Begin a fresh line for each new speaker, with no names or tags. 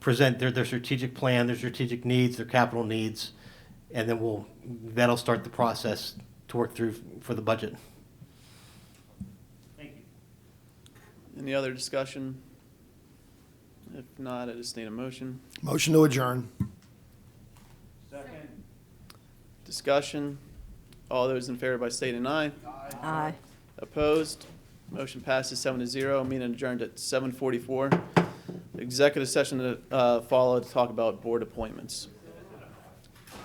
present their, their strategic plan, their strategic needs, their capital needs, and then we'll, that'll start the process to work through for the budget.
Any other discussion? If not, I just need a motion.
Motion to adjourn.
Discussion. All those in favor by state and I.
Aye.
Opposed? Motion passes seven to zero. Meeting adjourned at seven forty-four. Executive session to uh, follow to talk about board appointments.